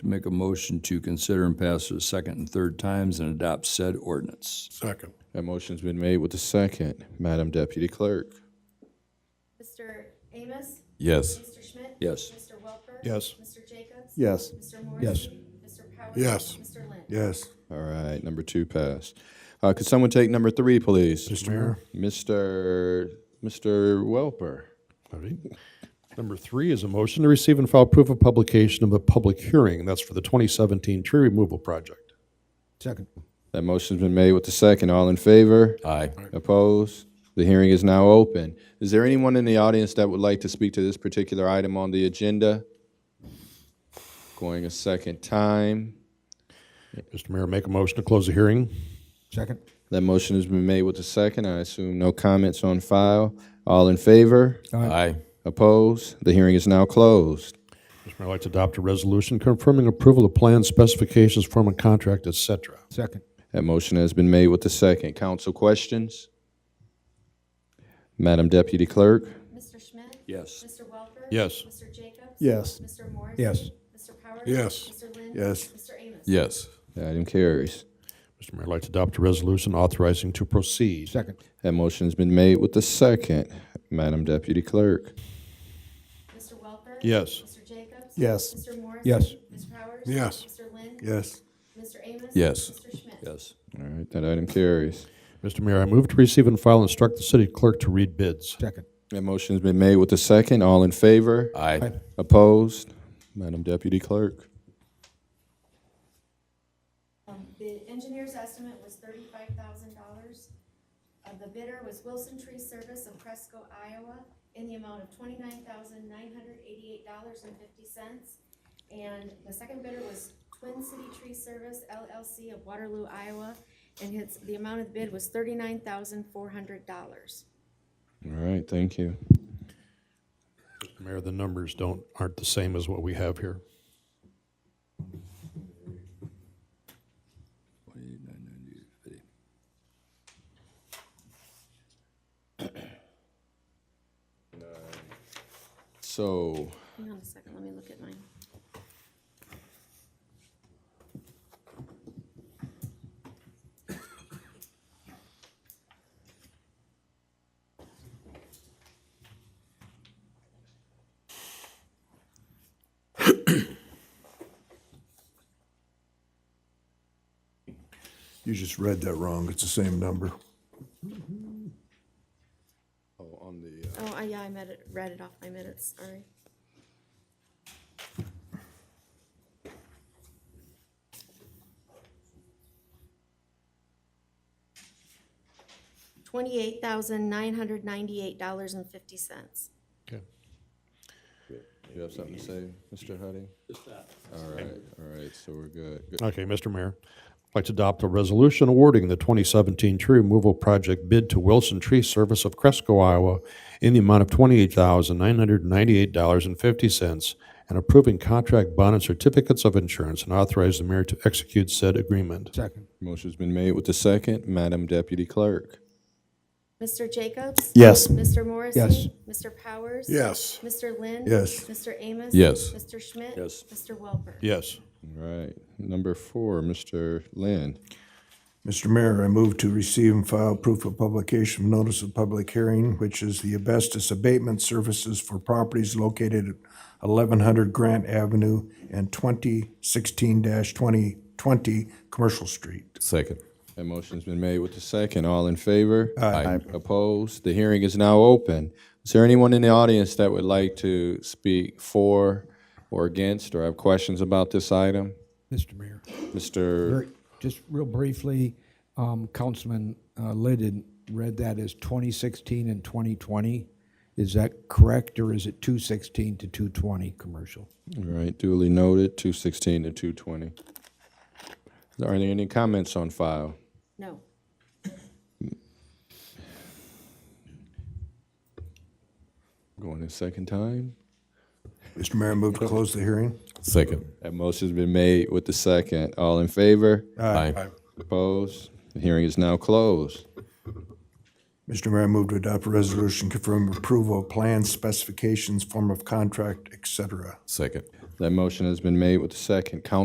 to make a motion to consider and pass for the second and third times and adopt said ordinance. Second. That motion's been made with the second. Madam Deputy Clerk. Mr. Amos? Yes. Mr. Schmidt? Yes. Mr. Welper? Yes. Mr. Jacobs? Yes. Mr. Morrissey? Yes. Mr. Powers? Yes. Mr. Lynn? Yes. All right, number two passed. Uh, could someone take number three, please? Mr. Mayor. Mr. Mr. Welper. All right. Number three is a motion to receive and file proof of publication of a public hearing. That's for the 2017 tree removal project. Second. That motion's been made with the second. All in favor? Aye. Opposed? The hearing is now open. Is there anyone in the audience that would like to speak to this particular item on the agenda? Going a second time. Mr. Mayor, make a motion to close the hearing. Second. That motion has been made with the second. I assume no comments on file. All in favor? Aye. Opposed? The hearing is now closed. Mr. Mayor, I'd like to adopt a resolution confirming approval of plans, specifications, form of contract, et cetera. Second. That motion has been made with the second. Council questions? Madam Deputy Clerk? Mr. Schmidt? Yes. Mr. Welper? Yes. Mr. Jacobs? Yes. Mr. Morrissey? Yes. Mr. Powers? Yes. Mr. Lynn? Yes. Mr. Amos? Yes. The item carries. Mr. Mayor, I'd like to adopt a resolution authorizing to proceed. Second. That motion's been made with the second. Madam Deputy Clerk? Mr. Welper? Yes. Mr. Jacobs? Yes. Mr. Morrissey? Yes. Mr. Powers? Yes. Mr. Lynn? Yes. Mr. Amos? Yes. Mr. Schmidt? Yes. All right, that item carries. Mr. Mayor, I move to receive and file and instruct the city clerk to read bids. Second. That motion's been made with the second. All in favor? Aye. Opposed? Madam Deputy Clerk? Um, The engineer's estimate was thirty-five thousand dollars. Uh, The bidder was Wilson Tree Service of Cresco, Iowa, in the amount of twenty-nine thousand nine hundred eighty-eight dollars and fifty cents. And the second bidder was Twin City Tree Service LLC of Waterloo, Iowa, and his, the amount of the bid was thirty-nine thousand four hundred dollars. All right, thank you. Mr. Mayor, the numbers don't, aren't the same as what we have here. So, Hang on a second, let me look at mine. You just read that wrong. It's the same number. oh, on the, uh, Oh, I, yeah, I met it, read it off my minutes, sorry. Twenty-eight thousand nine hundred ninety-eight dollars and fifty cents. Okay. you have something to say, Mr. Huddy? All right, all right, so we're good. Good. Okay, Mr. Mayor, I'd like to adopt a resolution awarding the 2017 tree removal project bid to Wilson Tree Service of Cresco, Iowa, in the amount of $28,998.50, and approving contract bond and certificates of insurance, and authorize the mayor to execute said agreement. Second. Motion's been made with the second. Madam Deputy Clerk? Mr. Jacobs? Yes. Mr. Morrissey? Yes. Mr. Powers? Yes. Mr. Lynn? Yes. Mr. Amos? Yes. Mr. Schmidt? Yes. Mr. Welper? Yes. All right, number four, Mr. Lynn. Mr. Mayor, I move to receive and file proof of publication of notice of public hearing, which is the asbestos abatement services for properties located at eleven hundred Grant Avenue and twenty sixteen twenty twenty Commercial Street. Second. That motion's been made with the second. All in favor? Aye. Opposed? The hearing is now open. Is there anyone in the audience that would like to speak for or against or have questions about this item? Mr. Mayor, Mr. very- just real briefly, um, Councilman uh, Liddon read that as 2016 and 2020. Is that correct, or is it 216 to 220 commercial? All right, duly noted, 216 to 220. Are there any comments on file? No. Going a second time? Mr. Mayor, I move to close the hearing. Second. That motion's been made with the second. All in favor? Aye. Opposed? The hearing is now closed. Mr. Mayor, I move to adopt a resolution confirming approval of plans, specifications, form of contract, et cetera. Second. That motion has been made with the second. Council